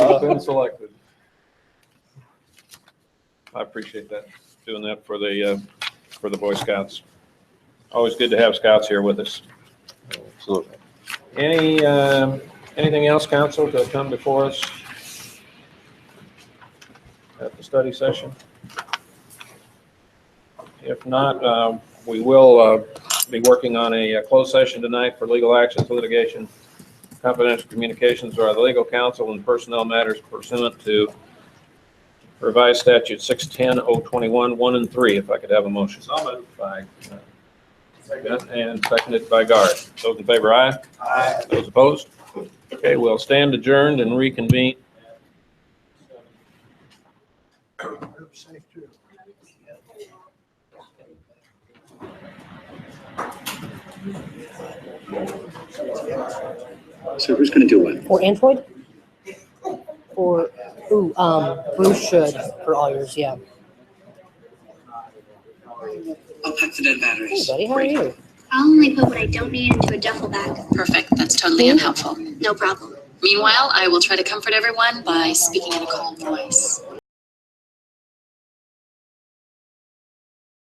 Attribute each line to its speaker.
Speaker 1: has been selected. I appreciate that.
Speaker 2: doing that for the, uh, for the Boy Scouts. Always good to have scouts here with us.
Speaker 3: Absolutely.
Speaker 2: Any, um, anything else, council, to come before us at the study session? If not, um, we will uh, be working on a uh, closed session tonight for legal actions, litigation, confidential communications, or the legal counsel and personnel matters pursuant to revised statute 610-021, 1 and 3, if I could have a motion. So moved. By uh, Bennett and seconded by Guard. Those in favor, aye. Those opposed? Okay, we'll stand adjourned and reconvene.
Speaker 4: So who's going to do what?
Speaker 5: For Android? For, ooh, um, Bruce should for all yours, yeah.
Speaker 4: I'll pack the dead
Speaker 5: Hey,
Speaker 4: batteries.
Speaker 5: buddy, how are you?
Speaker 6: I'll only put what I don't need into a duffel bag.
Speaker 7: Perfect. That's totally unhelpful.
Speaker 6: No problem.
Speaker 7: Meanwhile, I will try to comfort everyone by speaking in a calm voice.